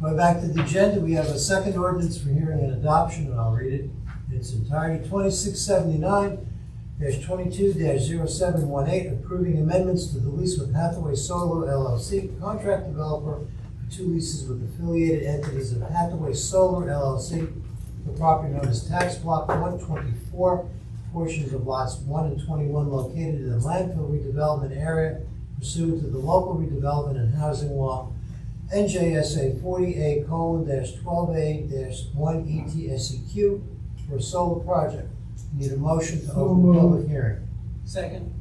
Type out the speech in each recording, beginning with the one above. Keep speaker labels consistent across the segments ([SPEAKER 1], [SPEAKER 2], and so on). [SPEAKER 1] Going back to the agenda, we have a second ordinance for hearing and adoption, and I'll read it in its entirety. Twenty-six seventy-nine twenty-two 718 approving amendments to the lease with Hathaway Solo LLC, contract developer for two leases with affiliated entities of Hathaway Solar LLC, the property known as Tax Block one twenty-four, portions of lots one and twenty-one located in the landfill redevelopment area pursuant to the local redevelopment and housing law NJSA forty A colon twelve A one E T S E Q for a solar project. Need a motion to open
[SPEAKER 2] moved.
[SPEAKER 1] public hearing.
[SPEAKER 3] Second.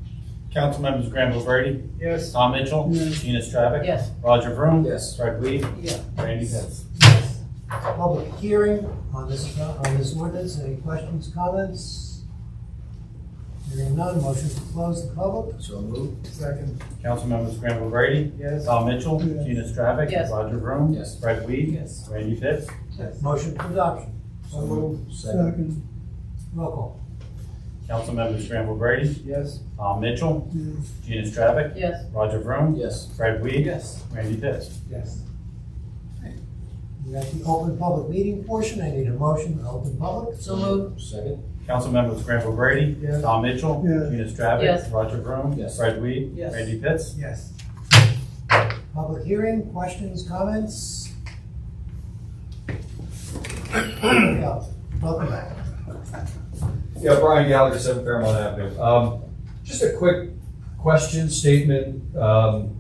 [SPEAKER 4] Council members Granville Brady,
[SPEAKER 2] Yes.
[SPEAKER 4] Tom Mitchell, Gina Stravic,
[SPEAKER 3] Yes.
[SPEAKER 4] Roger Vroom,
[SPEAKER 5] Yes.
[SPEAKER 4] Fred Weed,
[SPEAKER 3] Yeah.
[SPEAKER 4] Randy Pitts.
[SPEAKER 1] Public hearing on this, on this ordinance. Any questions, comments? Hearing none, motion to close the public.
[SPEAKER 5] So moved.
[SPEAKER 2] Second.
[SPEAKER 4] Council members Granville Brady,
[SPEAKER 2] Yes.
[SPEAKER 4] Tom Mitchell,
[SPEAKER 2] Yes.
[SPEAKER 4] Gina Stravic,
[SPEAKER 3] Yes.
[SPEAKER 4] Roger Vroom,
[SPEAKER 5] Yes.
[SPEAKER 4] Fred Weed,
[SPEAKER 3] Yes.
[SPEAKER 4] Randy Pitts.
[SPEAKER 1] Motion for adoption.
[SPEAKER 5] So moved. Second.
[SPEAKER 2] Second.
[SPEAKER 1] Roll call.
[SPEAKER 4] Council members Granville Brady,
[SPEAKER 2] Yes.
[SPEAKER 4] Tom Mitchell,
[SPEAKER 2] Yes.
[SPEAKER 4] Gina Stravic,
[SPEAKER 3] Yes.
[SPEAKER 4] Roger Vroom,
[SPEAKER 5] Yes.
[SPEAKER 4] Fred Weed,
[SPEAKER 3] Yes.
[SPEAKER 4] Randy Pitts.
[SPEAKER 2] Yes.
[SPEAKER 1] We got the open public meeting portion. I need a motion to open public.
[SPEAKER 3] So moved.
[SPEAKER 5] Second.
[SPEAKER 4] Council members Granville Brady,
[SPEAKER 2] Yes.
[SPEAKER 4] Tom Mitchell,
[SPEAKER 2] Yes.
[SPEAKER 4] Gina Stravic,
[SPEAKER 3] Yes.
[SPEAKER 4] Roger Vroom,
[SPEAKER 5] Yes.
[SPEAKER 4] Fred Weed,
[SPEAKER 3] Yes.
[SPEAKER 4] Randy Pitts.
[SPEAKER 2] Yes.
[SPEAKER 1] Public hearing, questions, comments? Welcome back.
[SPEAKER 6] Yeah, Brian Gallagher, Seven Fairmont Avenue. Um, just a quick question, statement. Um,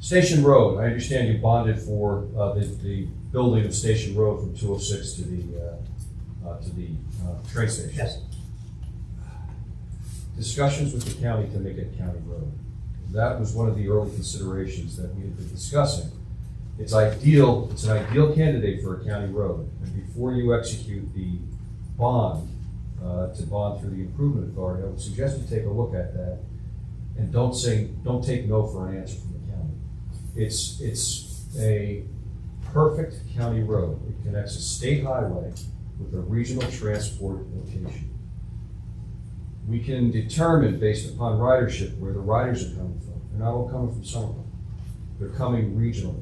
[SPEAKER 6] Station Road, I understand you bonded for, uh, the, the building of Station Road from two oh six to the, uh, uh, to the, uh, train station.
[SPEAKER 1] Yes.
[SPEAKER 6] Discussions with the county to make it county road. That was one of the early considerations that we had been discussing. It's ideal, it's an ideal candidate for a county road. And before you execute the bond, uh, to bond through the improvement authority, I would suggest you take a look at that. And don't say, don't take no for an answer from the county. It's, it's a perfect county road. It connects a state highway with a regional transport location. We can determine based upon ridership where the riders are coming from. They're not all coming from Somerville. They're coming regionally.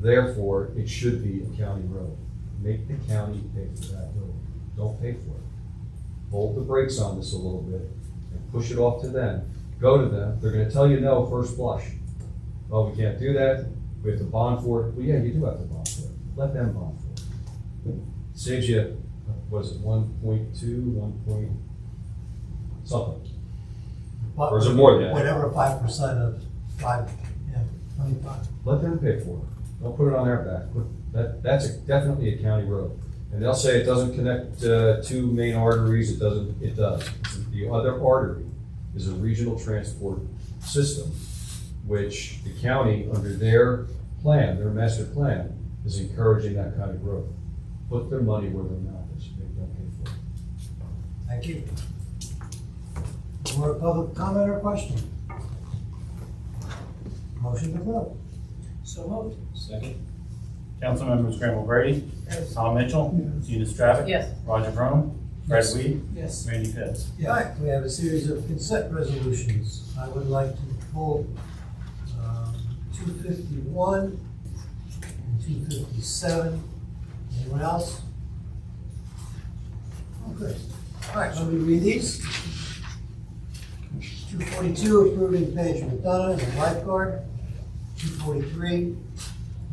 [SPEAKER 6] Therefore, it should be a county road. Make the county pay for that road. Don't pay for it hold the brakes on this a little bit and push it off to them. Go to them, they're gonna tell you no first blush. Oh, we can't do that, we have to bond for it. Well, yeah, you do have to bond for it. Let them bond for it. Saves you, what is it, one point two, one point something? Or is it more than that?
[SPEAKER 1] Whatever five percent of five, yeah, twenty-five.
[SPEAKER 6] Let them pay for it. Don't put it on their back. Put- That, that's a- definitely a county road. And they'll say it doesn't connect uh, two main arteries, it doesn't, it does. The other artery is a regional transport system, which the county, under their plan, their master plan, is encouraging that kind of road. Put their money where their mouth is, make them pay for
[SPEAKER 1] Thank
[SPEAKER 6] it.
[SPEAKER 1] you. More public comment or question? Motion to vote.
[SPEAKER 3] So moved.
[SPEAKER 5] Second.
[SPEAKER 4] Council members Granville Brady, Tom Mitchell,
[SPEAKER 2] Yes.
[SPEAKER 4] Gina Stravic,
[SPEAKER 3] Yes.
[SPEAKER 4] Roger Vroom, Fred Weed,
[SPEAKER 3] Yes.
[SPEAKER 4] Randy Pitts.
[SPEAKER 1] All right, we have a series of consent resolutions. I would like to pull um, two fifty-one and two fifty-seven. Anyone else? Okay. All right, let me read these. Two forty-two, approving Paige McDonough as a lifeguard. Two forty-three,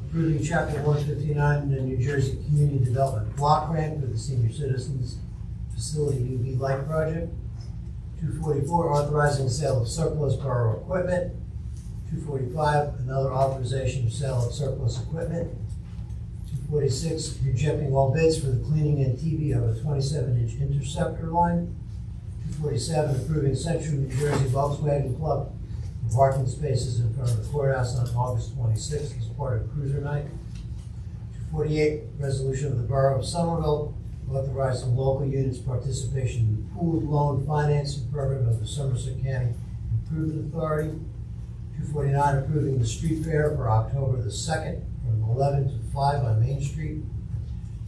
[SPEAKER 1] approving chapter one fifty-nine in the New Jersey Community Development Block Grant for the Senior Citizens Facility UV Light Project. 244, authorizing sale of surplus borough equipment. 245, another authorization of sale of surplus equipment. 246, rejecting all bids for the cleaning and TV of a 27-inch interceptor line. 247, approving Central New Jersey Volkswagen Club for parking spaces in front of the courthouse on August 26th as part of cruiser night. 248, resolution of the Borough of Somerville authorizing local units participation in the pooled loan financing program of the Somerset County Improvement Authority. Two forty-nine, approving the street fair for October the second from eleven to five on Main Street.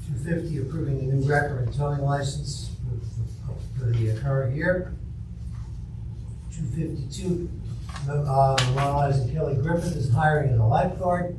[SPEAKER 1] Two fifty, approving the new record and towing license for- for the current year. uh, Two fifty-two, memorializing Kelly Griffin is hiring a lifeguard.